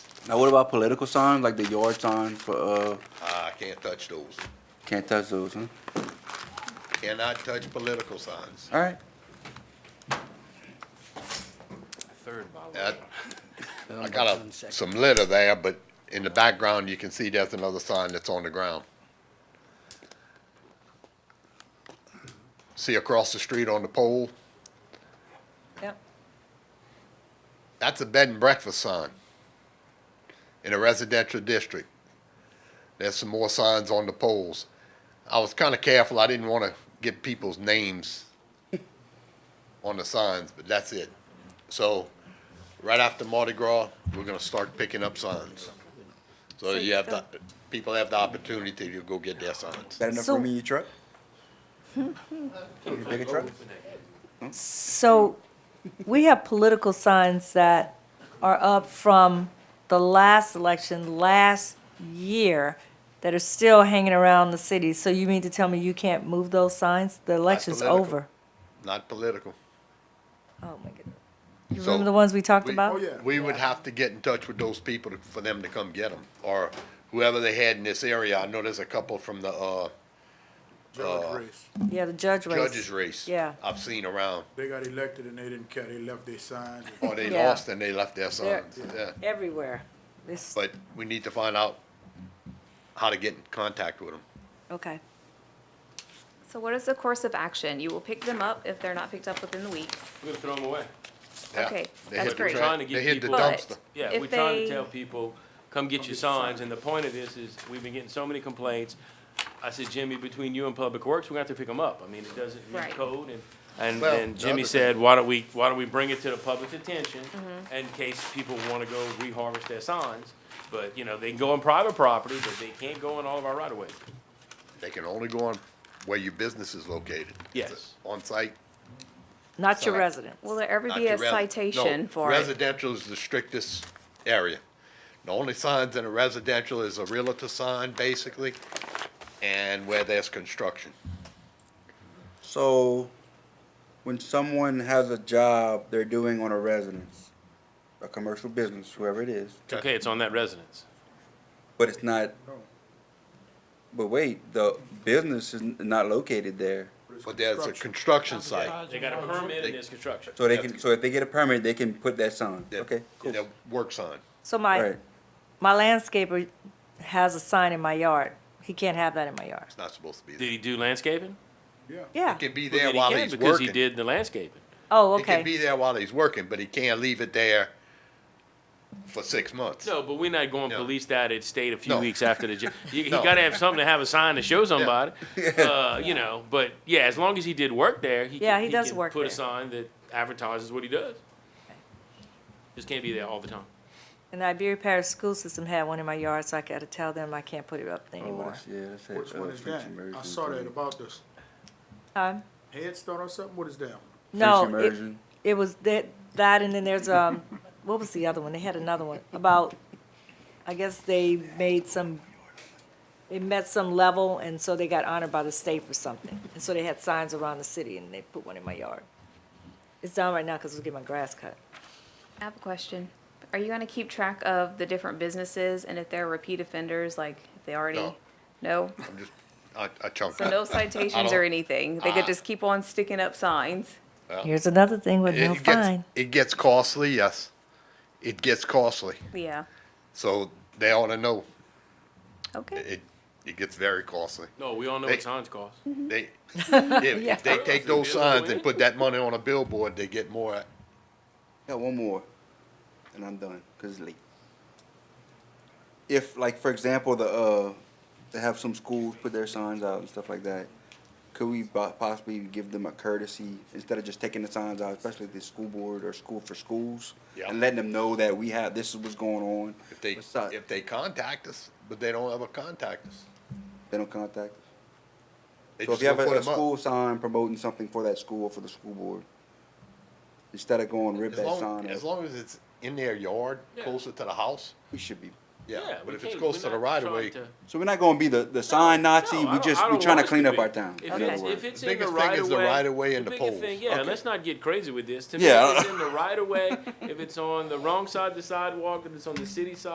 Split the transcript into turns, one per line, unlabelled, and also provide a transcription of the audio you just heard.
Now, what about political signs, like the yard sign for, uh,
I can't touch those.
can't touch those, huh?
Cannot touch political signs.
All right.
Uh, I got a- some litter there, but in the background, you can see there's another sign that's on the ground. See across the street on the pole?
Yep.
That's a bed and breakfast sign in a residential district. There's some more signs on the poles. I was kind of careful. I didn't want to get people's names on the signs, but that's it. So, right after Mardi Gras, we're going to start picking up signs. So,
So
you
you
have the, people have the opportunity to go get their signs.
That enough
So-
room in your truck? Your bigger truck?
So we have political signs that are up from the last election, last year, that are still hanging around the city. So you mean to tell me you can't move those signs? The election's
political.
over.
Not political.
Oh, my goodness. You
So-
remember the ones we talked
We- Oh,
about?
We would have to get in touch with those people to- for them to come get them, or whoever they had in this area. I know there's a couple from the, uh,
Judge race.
Yeah, the judge race.
judges race.
Yeah.
I've seen around,
They got elected and they didn't care. They left their signs.
or they
Yeah.
lost and they left their
They're-
signs, yeah.
Everywhere. This,
But we need to find out how to get in contact with them.
okay.
So what is the course of action? You will pick them up if they're not picked up within the week.
We're gonna throw them away.
Okay, that's great.
Trying to get
They hit the
people-
dumpster.
But-
Yeah,
If
we're trying
they-
to tell people, come get your signs, and the point of this is, we've been getting so many complaints. I said, Jimmy, between you and Public Works, we're gonna have to pick them up. I mean, it doesn't meet
Right.
code, and, and,
Well,
and
the
Jimmy
other
said, why don't we, why don't we bring it to the public's attention?
Mm-hmm.
In case people wanna go reharvest their signs, but, you know, they can go on private property, but they can't go on all of our right of ways.
They can only go on where your business is located.
Yes.
On-site.
Not your
Sorry.
residence.
Will there ever
not
be
your
a
resi- no,
citation for it?
Residential is the strictest area. The only signs in a residential is a realtor sign, basically, and where there's construction.
So, when someone has a job they're doing on a residence, a commercial business, whoever it is,
It's okay, it's on that residence.
but it's not, but wait, the business is n- not located there.
But there's a construction site.
They got a permit and there's construction.
So they can, so if they get a permit, they can put that sign.
that-
Okay, cool.
That works on.
So
All
my,
right.
my landscaper has a sign in my yard. He can't have that in my yard.
It's not supposed to be
Did
there.
he do landscaping?
Yeah.
Yeah.
It can be
Well,
there
then he
while
can
he's
Because he
working.
did the landscaping.
Oh,
It can
okay.
be there while he's working, but he can't leave it there for six months.
No, but we're not going to
No.
police that it stayed a few
No.
weeks after the. ju- You, you
No.
got to have something to have a sign to show somebody. Uh, you know, but yeah, as long as he did work there, he
Yeah,
can,
he does
can
work
put
there.
a sign that advertises what he does. Just can't be there all the time.
And the Iberia Parish School System had one in my yard, so I gotta tell them I can't put it up
Oh,
anymore.
that's- Yeah, that's it.
Which
Uh,
one is
French
that?
immersion
I saw that
program.
about this
Um,
headstone or something. What is that?
no,
French
it,
immersion.
it was that, that, and then there's, um, what was the other one? They had another one about, I guess they made some, they met some level, and so they got honored by the state for something. And so they had signs around the city, and they put one in my yard. It's down right now, cause I was getting my grass cut.
I have a question. Are you gonna keep track of the different businesses and if they're repeat offenders, like if they already?
No.
No?
I'm just, I, I chunked
So no
that.
citations or anything? They
Ah.
could just keep on sticking up signs?
Here's another thing with
It-
no
it gets-
fine.
It gets costly, yes. It gets costly.
Yeah,
So they ought to know.
okay.
It, it gets very costly.
No, we all know
They-
what signs cost.
Mm-hmm.
They, if, if they take those signs and put that money on a billboard, they get more.
Got one more, and I'm done because it's late. If, like, for example, the uh, they have some schools put their signs out and stuff like that, could we po- possibly give them a courtesy instead of just taking the signs out, especially the school board or school for schools,
Yeah.
and letting them know that we have this is what's going on.
If they,
What's up?
if they contact us, but they don't ever contact us.
they don't contact us.
They
So if
just
you
go
have a,
put
a
'em up.
school sign promoting something for that school or for the school board, instead of going rip
As
that
long,
sign,
as
up,
long as it's in their yard,
Yeah.
closer to the house,
we should be.
yeah,
we
but if it's
can't-
close
we're
to the
not
right of
trying
way.
to-
So we're not going to be the, the sign Nazi.
No, I
we
don't-
just
I
we're
don't
trying to
want us
clean up
be.
our town.
If
in other
it's,
words.
if it's
The
in the
biggest thing
right
is
of
the
way.
right of way and the
biggest thing-
poles.
Yeah,
Okay.
let's not get crazy with this. To me,
Yeah.
if it's in the right of way, if it's on the wrong side of the sidewalk, if it's on the city side.